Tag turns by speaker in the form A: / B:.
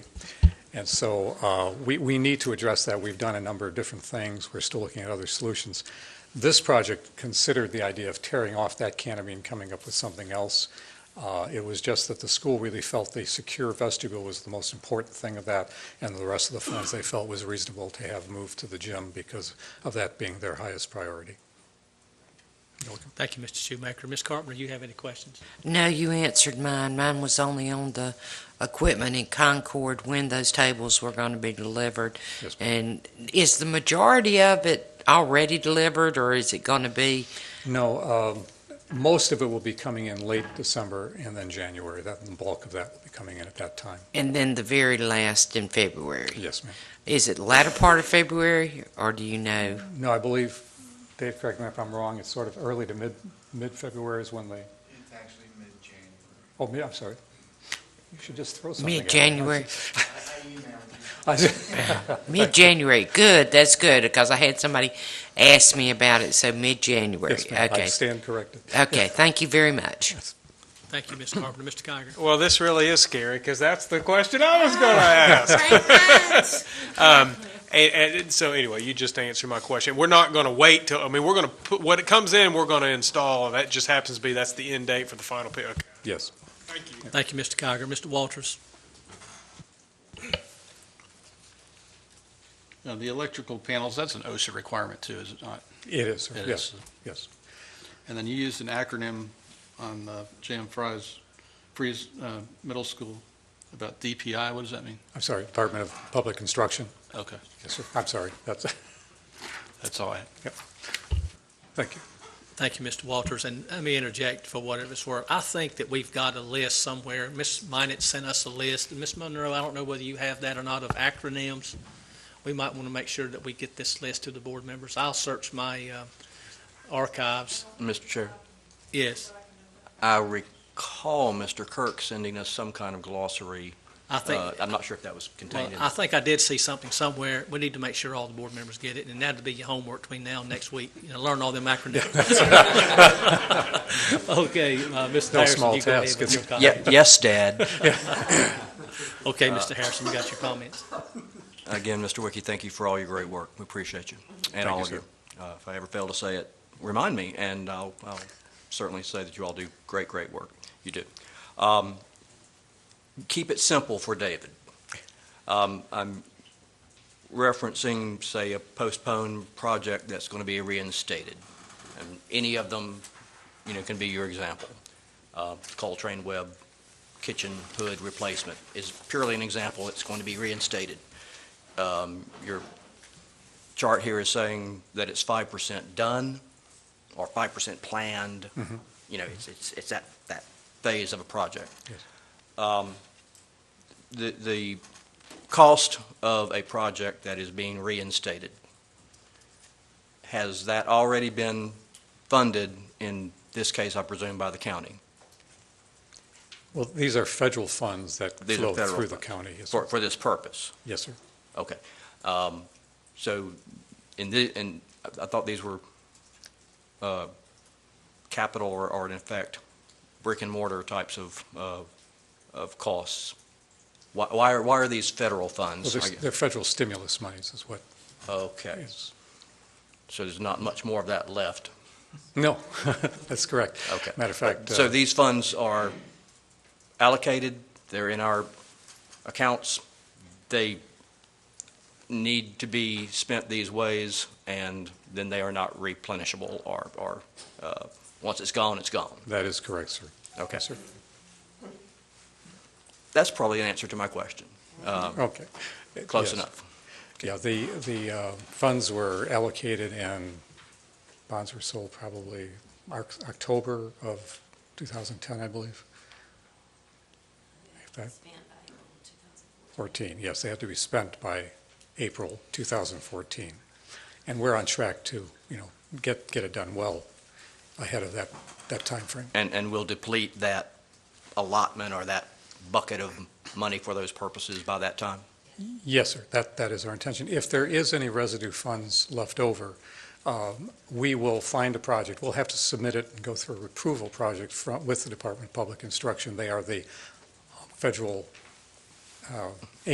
A: And so uh, we, we need to address that. We've done a number of different things. We're still looking at other solutions. This project considered the idea of tearing off that canopy and coming up with something else. Uh, It was just that the school really felt the secure vestibule was the most important thing of that, and the rest of the funds they felt was reasonable to have moved to the gym because of that being their highest priority.
B: Thank you, Mr. Shoemaker. Ms. Carpenter, you have any questions?
C: No, you answered mine. Mine was only on the equipment in Concord when those tables were going to be delivered.
A: Yes, ma'am.
C: And is the majority of it already delivered, or is it going to be?
A: No, um, most of it will be coming in late December and then January. That, the bulk of that will be coming in at that time.
C: And then the very last in February.
A: Yes, ma'am.
C: Is it latter part of February, or do you know?
A: No, I believe, Dave, correct me if I'm wrong, it's sort of early to mid, mid-February is when they,
D: It's actually mid-January.
A: oh, mid, I'm sorry. You should just throw something. at me.
C: Mid-January.
D: I emailed you.
A: I just-
C: Mid-January. Good. That's good because I had somebody ask me about it. So mid-January.
A: Yes, ma'am, I
C: okay.
A: stand corrected.
C: Okay. Thank you very much.
B: Thank you, Ms. Carpenter. Mr. Geiger?
E: Well, this really is scary because that's the question I was going to ask. um, and, and so, anyway, you just answered my question. We're not going to wait till. I mean, we're going to put when it comes in. We're going to install. and That just happens to be that's the end date for the final pick. Okay,
A: Yes.
E: thank you.
B: Thank you, Mr. Geiger. Mr. Walters?
F: Now, the electrical panels, that's an OSHA requirement too, is it not?
A: It is, sir.
F: It
A: yes,
F: is.
A: yes.
F: And then you used an acronym on uh, J.M. Fry's, Freeze uh, Middle School about DPI. What does that mean?
A: I'm sorry, Department of Public Construction.
F: Okay,
A: Yes, sir. I'm sorry, that's,
F: that's all I have.
A: thank you.
B: Thank you, Mr. Walters, and let me interject for whatever it's worth. I think that we've got a list somewhere. Ms. Minnet sent us a list. Ms. Monroe, I don't know whether you have that or not of acronyms. We might want to make sure that we get this list to the board members. I'll search my uh, archives.
G: Mr. Chair,
B: Yes,
G: I recall Mr. Kirk sending us some kind of glossary.
B: I think,
G: Uh, I'm not sure if that was
B: well,
G: contained in.
B: I think I did see something somewhere. We need to make sure all the board members get it, and that'll be your homework between now and next week. You know, learn all them acronyms. Okay, uh, Mr.
A: No
B: Harrison,
A: small
B: you go ahead
A: task,
B: with
A: is
B: your
A: it?
B: comment.
G: Ye- Yes, Dad.
B: Okay, Mr. Harrison, you got your comments.
G: Again, Mr. Wiki, thank you for all your great work. We appreciate you
A: Mm-hmm. Thank
G: and all
A: you,
G: of
A: sir.
G: you. Uh, If I ever fail to say it, remind me, and I'll I'll certainly say that you all do great, great work. You do. Um, Keep it simple for David. Um, I'm referencing, say, a postponed project that's going to be reinstated. And any of them, you know, can be your example. Uh, Coltrane Web kitchen hood replacement is purely an example. It's going to be reinstated um, your chart here is saying that it's five percent done or five percent planned.
A: Mhm.
G: You know, it's, it's, it's that, that phase of a project.
A: Yes.
G: Um, the, the cost of a project that is being reinstated, has that already been funded, in this case, I presume, by the county?
A: Well, these are federal funds that
G: These are
A: flow
G: federal
A: through the
G: funds.
A: county. Yes,
G: For,
A: sir.
G: for this purpose?
A: Yes, sir.
G: Okay. Um, So, in the, and I thought these were uh, capital or, or in effect, brick and mortar types of, uh, of costs. Why, why are, why are these federal
A: Well,
G: funds?
A: they're- they're federal stimulus monies is what,
G: Okay.
A: yes.
G: So there's not much more of that left.
A: No, that's correct.
G: Okay.
A: Matter of fact. uh,
G: So these funds are allocated, they're in our accounts, they need to be spent these ways, and then they are not replenishable, or, or, uh, once it's gone, it's gone.
A: That is correct, sir.
G: Okay.
A: Yes, sir.
G: That's probably an answer to my question. Um,
A: Okay.
G: Close
A: Yes.
G: enough.
A: Yeah, the, the uh, funds were allocated and bonds were sold probably March- October of 2010, I believe. If that- 14, yes, they had to be spent by April 2014. And we're on track to, you know, get, get it done well ahead of that, that timeframe.
G: And, and we'll deplete that allotment or that bucket of money for those purposes by that time?
A: Yes, sir. That, that is our intention. If there is any residue funds left over, um, we will find a project. We'll have to submit it and go through an approval project from, with the Department of Public Instruction. They are the federal uh,